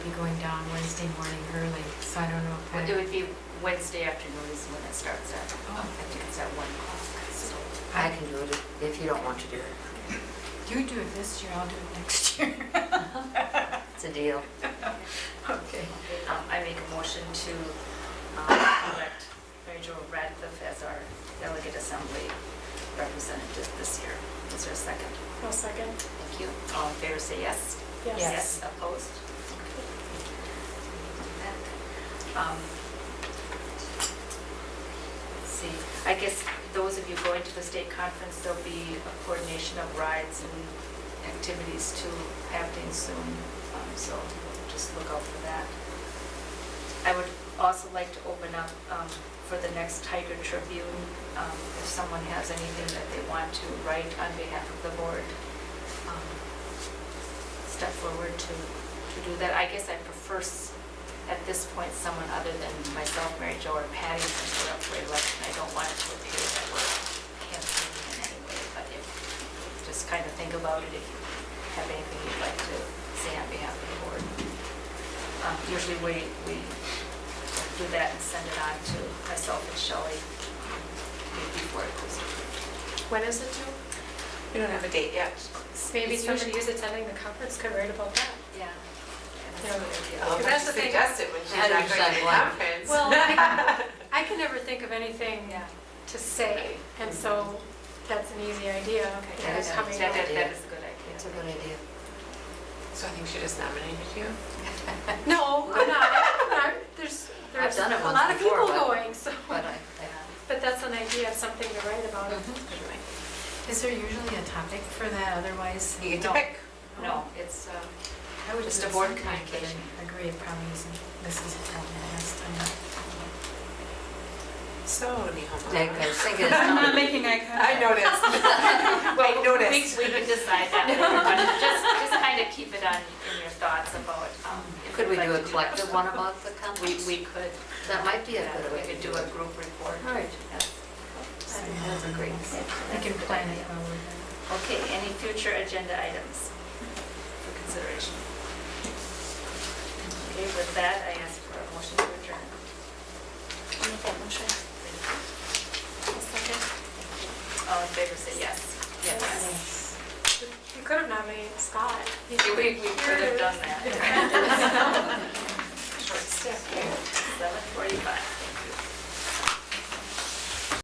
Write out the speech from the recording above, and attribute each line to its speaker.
Speaker 1: going down Wednesday morning early, so I don't know if
Speaker 2: It
Speaker 1: I,
Speaker 2: would be Wednesday afternoon is when it starts at,
Speaker 1: Oh,
Speaker 2: I think it's at one o'clock, so.
Speaker 3: I can do it if- if you don't want to do it.
Speaker 1: you do it this year, I'll do it next year.
Speaker 3: It's a deal.
Speaker 1: Okay.
Speaker 2: Um, I make a motion to um, elect Mary Jo Radcliffe as our delegate assembly representative this year. Is there a second?
Speaker 4: I'll second.
Speaker 2: Thank you. All in favor, say yes.
Speaker 4: Yes.
Speaker 2: Opposed? Okay. Um, See, I guess those of you going to the state conference, there'll be a coordination of rides and activities too happening soon, um, so just look out for that. I would also like to open up um, for the next Tiger Tribune, um, if someone has anything that they want to write on behalf of the board, um, step forward to, to do that. I guess I prefer, s- at this point, someone other than myself, Mary Jo, or Patty, since we're up for election. I don't want it to appear that we're campaigning in any way, but if, just kind of think about it, if you have anything you'd like to say on behalf of the board. Um, Usually we, we do that and send it on to myself and Shelley before it goes.
Speaker 4: When is it due?
Speaker 5: We don't have a date yet.
Speaker 4: Maybe
Speaker 2: It's usually-
Speaker 4: somebody who's attending the conference could write about that.
Speaker 2: Yeah.
Speaker 4: Yeah.
Speaker 5: Oh,
Speaker 4: Because that's the thing.
Speaker 5: Suggested when she's
Speaker 3: How do you
Speaker 5: not going to
Speaker 3: decide
Speaker 5: the
Speaker 3: one?
Speaker 5: conference.
Speaker 4: Well, I I can never think of anything
Speaker 2: Yeah.
Speaker 4: to say, and so that's an easy idea.
Speaker 2: Okay.
Speaker 4: that is
Speaker 3: Yeah,
Speaker 4: coming
Speaker 2: That,
Speaker 4: up.
Speaker 2: that that is a good
Speaker 3: It's a
Speaker 2: idea.
Speaker 3: good idea.
Speaker 5: So I think she just nominated you.
Speaker 4: No, I'm not. I'm not. There's,
Speaker 3: I've
Speaker 4: there's
Speaker 3: done it
Speaker 4: a
Speaker 3: once
Speaker 4: lot of
Speaker 3: before,
Speaker 4: people
Speaker 3: but-
Speaker 4: going, so,
Speaker 3: But
Speaker 2: uh,
Speaker 3: I,
Speaker 4: but that's an idea of something to write about.
Speaker 1: Is there usually a topic for that, otherwise?
Speaker 5: You get to
Speaker 1: No.
Speaker 5: pick.
Speaker 2: No, it's, um,
Speaker 1: I would
Speaker 2: Just
Speaker 1: do
Speaker 2: a board
Speaker 1: something, but
Speaker 2: communication.
Speaker 1: I agree, it probably isn't, this is a topic last time.
Speaker 5: So Nihoma.
Speaker 3: Nick, I was thinking, it's not-
Speaker 6: making eye
Speaker 5: I noticed. I
Speaker 2: We
Speaker 5: noticed.
Speaker 2: we can decide that later, but just, just kind of keep it on in your thoughts about. um, if
Speaker 3: could we
Speaker 2: you'd like
Speaker 3: do a
Speaker 2: to that.
Speaker 3: collective one about the
Speaker 2: We,
Speaker 3: companies?
Speaker 2: we could.
Speaker 3: That might be a
Speaker 2: yeah,
Speaker 3: good
Speaker 2: We
Speaker 3: way
Speaker 2: could
Speaker 3: to
Speaker 2: do
Speaker 3: do
Speaker 2: a
Speaker 3: it.
Speaker 2: group report.
Speaker 3: All right.
Speaker 2: Yes.
Speaker 1: So,
Speaker 3: That's a great idea.
Speaker 1: We can plan it forward.
Speaker 2: Okay, any future agenda items for consideration? Okay, with that, I ask for a motion to adjourn. All in favor, say yes.
Speaker 4: Yes. You could have nominated Scott.
Speaker 2: We, we could have done that.
Speaker 5: Short step.
Speaker 2: Seven forty-five.